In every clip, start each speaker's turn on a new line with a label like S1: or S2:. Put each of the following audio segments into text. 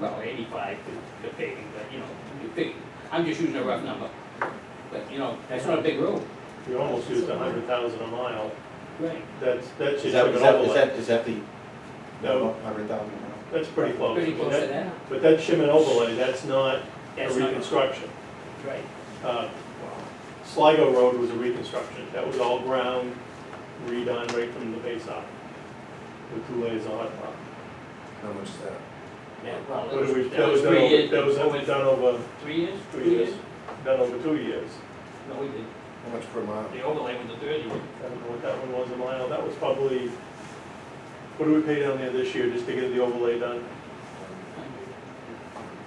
S1: well, eighty-five to, to paving, but, you know, you fig- I'm just using a rough number. But, you know, that's not a big road.
S2: You almost used a hundred thousand a mile,
S1: Right.
S2: that's, that should
S3: Is
S2: have an
S3: that, is that, is
S2: overlay.
S3: that, is that the,
S2: No.
S3: hundred thousand?
S2: That's pretty close.
S1: Pretty close to
S2: That-
S1: that,
S2: But that's shim and overlay, that's not a
S1: that's not,
S2: reconstruction.
S1: right,
S2: Uh, Sligo Road was a reconstruction, that was all ground redone right from the base up, with two layers of hot top.
S3: How much is that?
S1: yeah, well,
S2: That was,
S1: that was,
S2: that was done
S1: three
S2: over,
S1: years.
S2: that was
S1: over
S2: done over,
S1: Three years?
S2: three years, done over two years.
S1: No, we did,
S3: How much per mile?
S1: the overlay was the third year.
S2: I don't know what that one was a mile, that was probably, what do we pay down there this year just to get the overlay done?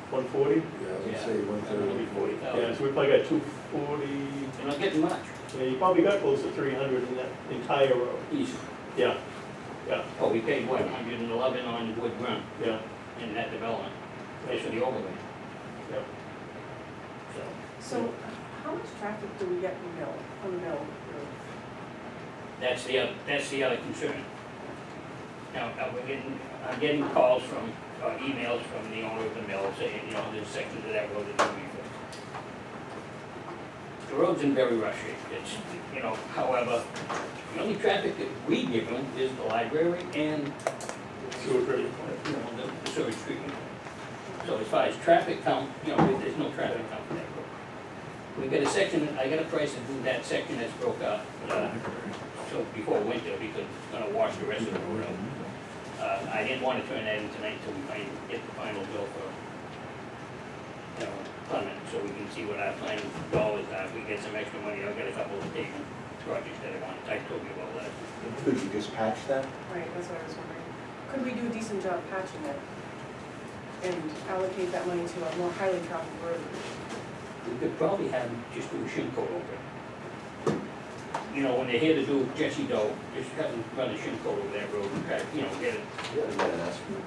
S2: One forty?
S3: Yeah, I
S1: Yeah.
S3: would say one
S1: That'd be
S3: thirty.
S1: 40,000.
S2: Yeah, so we probably got two forty,
S1: You're not getting much.
S2: yeah, you probably got close to three hundred in that entire road.
S1: Easy.
S2: Yeah,
S1: Oh, we paid what, hundred and eleven on Wood Run
S2: yeah.
S1: in that development, that's for the overlay.
S2: Yep.
S1: So,
S4: So how much traffic do we get from Mill, from Mill Road?
S1: that's the, oth- that's the other concern. Now, uh, we're getting, I'm getting calls from, or emails from the owner of the mill saying, you know, there's sections of that road that need to be fixed. The road's in very rough shape, it's, you know, however, the only traffic that we give them is the library and
S2: Sewer treatment
S1: you know, the- the sewage treatment. So as far as traffic count, you know, there- there's no traffic count for that road. We got a section, I got a price to do that section that's broke up, uh, so before winter, because it's gonna wash the rest of the road out. Uh, I didn't wanna turn that in tonight till we find, get the final bill for, you know, Clement, so we can see what our final dollars are, if we get some extra money, I've got a couple of paving projects that I want, I told you about that.
S3: Could you just patch that?
S4: Right, that's what I was wondering. Could we do a decent job patching it? And allocate that money to a more highly traveled road?
S1: We could probably have them just do a shim coat over it. You know, when they're here to do Jesse Doe, just have them run a shim coat over that road and try, to, you know, get it.
S3: Yeah, I'm gonna ask you.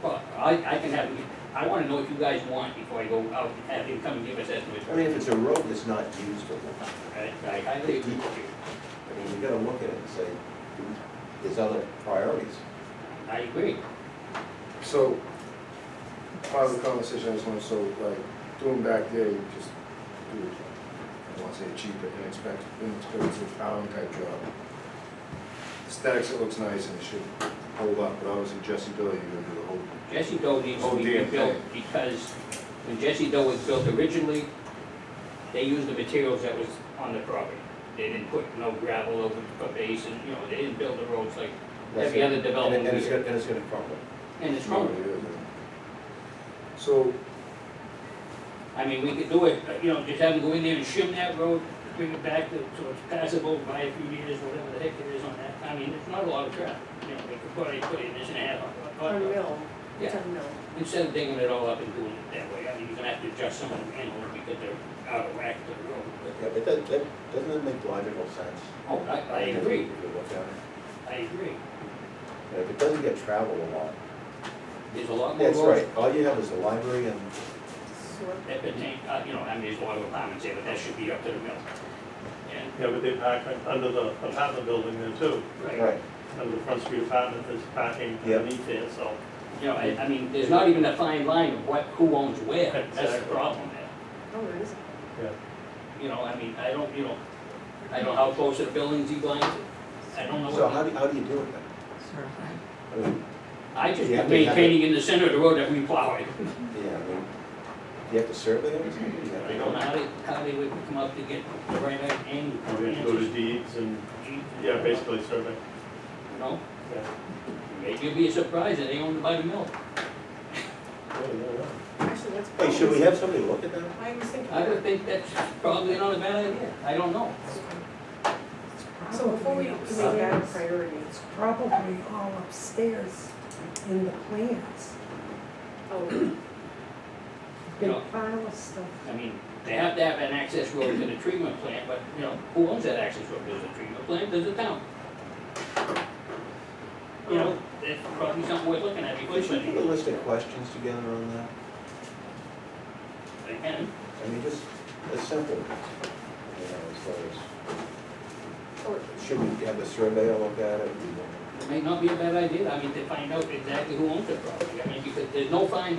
S1: But I, I can have, them- I wanna know what you guys want before I go out and have him come and give us estimates.
S3: I mean, if it's a road that's not used, or not,
S1: I I highly agree with you.
S3: I mean, you gotta look at it and say, there's other priorities.
S1: I agree.
S5: So, part of the conversation, I just want, so like, doing back there, you just do, I don't wanna say cheap, but inexpensive, inexpensive hour type job. Aesthetics, it looks nice and it should hold up, but obviously Jesse Billy, you're gonna do the whole,
S1: Jesse Doe needs to
S5: Oh,
S1: be
S5: dear.
S1: rebuilt because when Jesse Doe was built originally, they used the materials that was on the property. They didn't put no gravel over the base and, you know, they didn't build the roads like
S3: That's
S1: every
S3: it.
S1: other
S3: And
S1: development
S3: it- and
S1: we
S3: it's
S1: do.
S3: gonna, and it's gonna crumble.
S1: And it's
S5: you know,
S1: wrong.
S5: it is. So,
S1: I mean, we could do it, but, you know, just have them go in there and shim that road, bring it back to, so it's passable by a few meters, whatever the heck it is on that. I mean, it's not a lot of traffic, you know, they could probably put in this and a half. on- on-
S4: On Mill, it's
S1: Uh, Yeah,
S4: on Mill.
S1: instead of digging it all up and doing it that way, I mean, you're gonna have to adjust some of the manholes because they're out of whack to the road. but-
S3: Yeah, but that, that, doesn't it make logical sense?
S1: Oh, I, I agree,
S3: If you look at it.
S1: I agree.
S3: And if it doesn't get traveled a lot,
S1: There's a lot more
S3: that's
S1: roads
S3: right, all you have is the library and
S4: Sewer.
S1: that pertain, uh, you know, I mean, there's a lot of apartments there, but that should be up to the mill. And,
S2: Yeah, but they pack un- under the apartment building there too,
S1: right,
S3: Right,
S2: under the front street apartment, there's packing
S3: Yeah.
S2: underneath there, so.
S1: you know, I, I mean, there's not even a fine line of what, who owns where, that's the
S2: Exactly.
S1: problem there.
S4: Oh, there is.
S1: You know, I mean, I don't, you know, I don't know how close to the buildings he blinds it. I don't know.
S3: so
S1: what-
S3: how do, how do you do it then? I mean,
S1: I just
S3: You have to have
S1: maintaining in the center of the road that we plow it.
S3: yeah, I mean, you have to survey everything? You have
S1: I
S3: to-
S1: don't know how they, how they would come up to get the right angle.
S2: We have to Oh, go to deeds and, yeah, basically survey.
S1: You know,
S2: Yeah.
S1: maybe you'll be surprised that they own it by the mill.
S2: Yeah, yeah, yeah.
S4: Actually, that's
S3: Hey,
S4: probably.
S3: should we have somebody look at that?
S4: I was thinking.
S1: I would
S4: that.
S1: think that's probably not a bad idea. I don't know.
S4: So before we we make
S1: Uh,
S4: that a priority,
S6: It's probably all upstairs in the plans,
S4: oh,
S1: You
S6: big
S1: know,
S6: pile of stuff.
S1: I mean, they have to have an access road to the treatment plant, but, you know, who owns that access road? Does the treatment plant, does the town? You know, that's probably something worth looking at before.
S3: We should
S1: spending.
S3: put a list of questions together on that.
S1: They can.
S3: I mean, just, as simple, you know, as far
S4: or
S3: as, should we have the surveyor look at it?
S1: It may not be a bad idea, I mean, to find out exactly who owns the property, I mean, because there's no fine